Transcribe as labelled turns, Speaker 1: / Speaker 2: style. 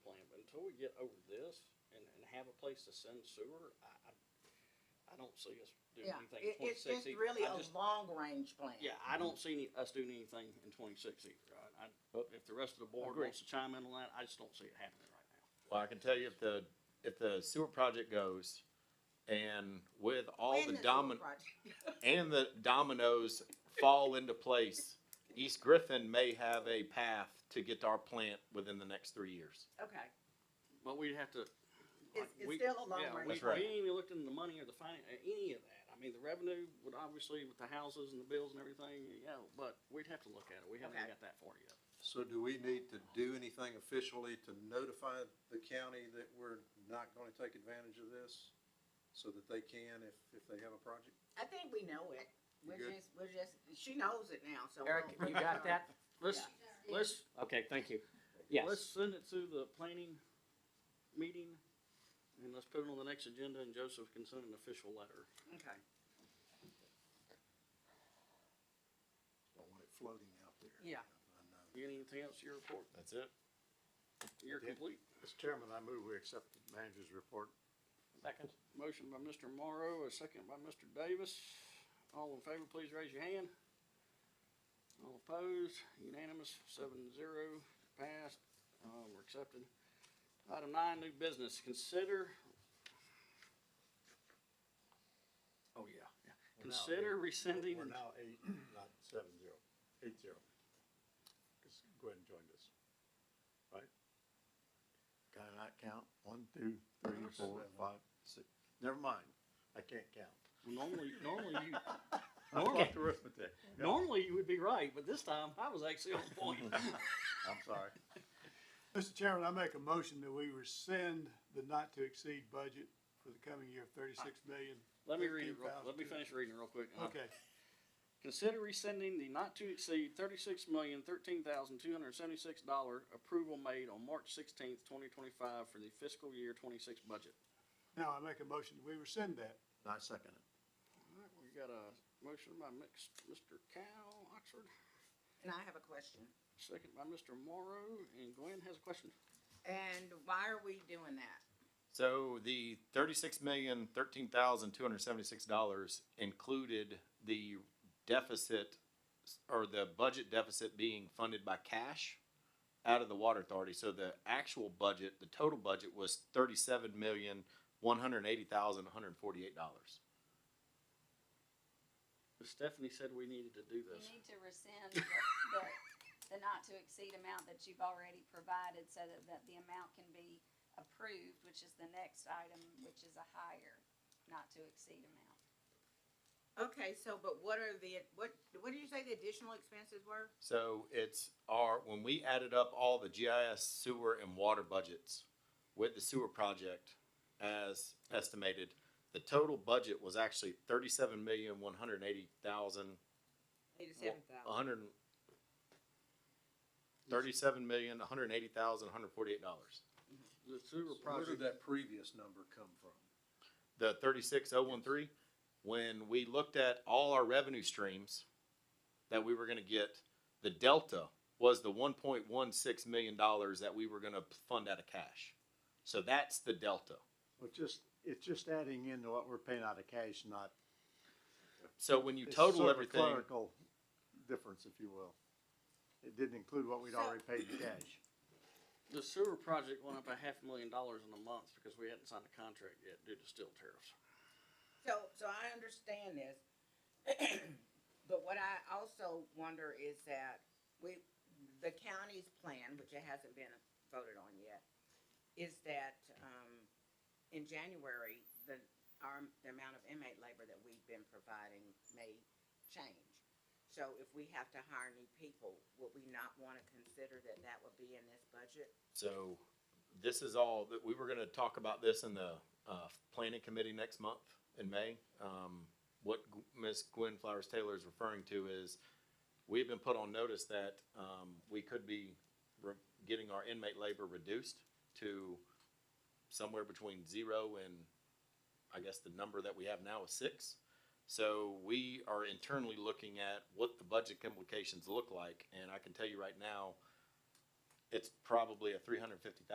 Speaker 1: get over this and, and have a place to send sewer, I, I, I don't see us doing
Speaker 2: Yeah,
Speaker 1: anything in
Speaker 2: it, it's
Speaker 1: twenty-six
Speaker 2: just
Speaker 1: either.
Speaker 2: really
Speaker 1: I
Speaker 2: a
Speaker 1: just-
Speaker 2: long-range plan.
Speaker 1: Yeah, I don't see any, us doing anything in twenty-six either. I, I,
Speaker 3: Well,
Speaker 1: if the rest of the board
Speaker 3: Oh. agree.
Speaker 1: wants to chime in on that, I just don't see it happening right now.
Speaker 3: Well, I can tell you if the, if the sewer project goes and with all
Speaker 2: When
Speaker 3: the
Speaker 2: is
Speaker 3: domin,
Speaker 2: project?
Speaker 3: and the dominoes fall into place, East Griffin may have a path to get to our plant within the next three years.
Speaker 2: Okay,
Speaker 1: But we'd have to. like,
Speaker 2: it's, it's
Speaker 1: we-
Speaker 2: still a
Speaker 1: yeah, we-
Speaker 2: long-range.
Speaker 3: That's right.
Speaker 1: We ain't even looked into the money or the finan- uh any of that. I mean, the revenue would obviously with the houses and the bills and everything, you know, but we'd have to look at it. We haven't
Speaker 2: Okay.
Speaker 1: got that far yet.
Speaker 4: So do we need to do anything officially to notify the county that we're not gonna take advantage of this? So that they can if, if they have a project?
Speaker 2: I think we know it. We're
Speaker 4: good?
Speaker 2: just, we're just, she knows it now, so.
Speaker 5: Eric,
Speaker 2: we'll-
Speaker 5: you got that?
Speaker 1: Let's, let's,
Speaker 5: Okay, thank you.
Speaker 1: let's
Speaker 5: Yes,
Speaker 1: send it to the planning meeting and let's put it on the next agenda and Joseph can send an official letter.
Speaker 2: Okay.
Speaker 4: Don't want it floating out there.
Speaker 2: Yeah.
Speaker 4: I know.
Speaker 1: You got anything else to your report?
Speaker 3: That's it.
Speaker 1: You're
Speaker 6: did.
Speaker 1: complete.
Speaker 6: Mr. Chairman, I move we accept the manager's report.
Speaker 5: second.
Speaker 1: Motion by Mr. Morrow, a second by Mr. Davis. All in favor, please raise your hand. All opposed, unanimous, seven zero, passed, uh, we're accepted. Item nine, new business, consider. Oh, yeah, yeah.
Speaker 6: We're now
Speaker 1: Consider rescinding,
Speaker 6: We're now eight, not seven zero, eight zero. Just go ahead and join us. Right? Can I not count? One, two, three, four, five, six. Never mind. I can't count.
Speaker 1: normally, normally you,
Speaker 6: I
Speaker 1: Normal.
Speaker 6: fucked arithmetic.
Speaker 1: normally you would be right, but this time I was actually on point.
Speaker 6: I'm sorry.
Speaker 7: Mr. Chairman, I make a motion that we rescind the not to exceed budget for the coming year of thirty-six million.
Speaker 1: Let me read it, real- let me finish reading it real quick. and I'll-
Speaker 7: Okay,
Speaker 1: Consider rescinding the not to exceed thirty-six million, thirteen thousand, two hundred and seventy-six dollar approval made on March sixteenth, twenty twenty-five for the fiscal year twenty-six budget.
Speaker 7: now I make a motion that we rescind that.
Speaker 6: I second it.
Speaker 1: All right, we got a motion by mix- Mr. Cal Oxford,
Speaker 2: And I have a question.
Speaker 1: second by Mr. Morrow, and Glenn has a question.
Speaker 2: And why are we doing that?
Speaker 3: So the thirty-six million, thirteen thousand, two hundred seventy-six dollars included the deficit or the budget deficit being funded by cash out of the water authority. So the actual budget, the total budget was thirty-seven million, one hundred eighty thousand, one hundred forty-eight dollars.
Speaker 1: Stephanie said we needed to do
Speaker 8: You
Speaker 1: this.
Speaker 8: need to rescind the, the, the not to exceed amount that you've already provided so that, that the amount can be approved, which is the next item, which is a higher not to exceed amount.
Speaker 2: Okay, so, but what are the, what, what did you say the additional expenses were?
Speaker 3: So it's our, when we added up all the GIS sewer and water budgets with the sewer project as estimated, the total budget was actually thirty-seven million, one hundred and eighty thousand,
Speaker 2: Eighty-seven
Speaker 3: a
Speaker 2: thousand.
Speaker 3: hundred and thirty-seven million, one hundred and eighty thousand, one hundred and forty-eight dollars.
Speaker 1: The sewer
Speaker 4: So Where did
Speaker 1: project,
Speaker 4: that previous number come from?
Speaker 3: The thirty-six oh one three, when we looked at all our revenue streams that we were gonna get, the delta was the one point one six million dollars that we were gonna fund out of cash. So that's the delta.
Speaker 6: Well, just, it's just adding into what we're paying out of cash, not.
Speaker 3: So when you
Speaker 6: it's
Speaker 3: total
Speaker 6: sort of a
Speaker 3: everything,
Speaker 6: Clerical difference, if you will. It didn't include what we'd already paid in cash.
Speaker 1: the sewer project went up a half million dollars in a month because we hadn't signed a contract yet due to steel tariffs.
Speaker 2: So, so I understand this. But what I also wonder is that we, the county's plan, which it hasn't been voted on yet, is that, um, in January, the, our, the amount of inmate labor that we've been providing may change. So if we have to hire new people, would we not wanna consider that that would be in this budget?
Speaker 3: so this is all, that we were gonna talk about this in the, uh, planning committee next month in May. Um, what G- Ms. Gwen Flowers Taylor is referring to is, we've been put on notice that, um, we could be re- getting our inmate labor reduced to somewhere between zero and, I guess the number that we have now is six. So we are internally looking at what the budget implications look like, and I can tell you right now, it's probably a three hundred fifty thousand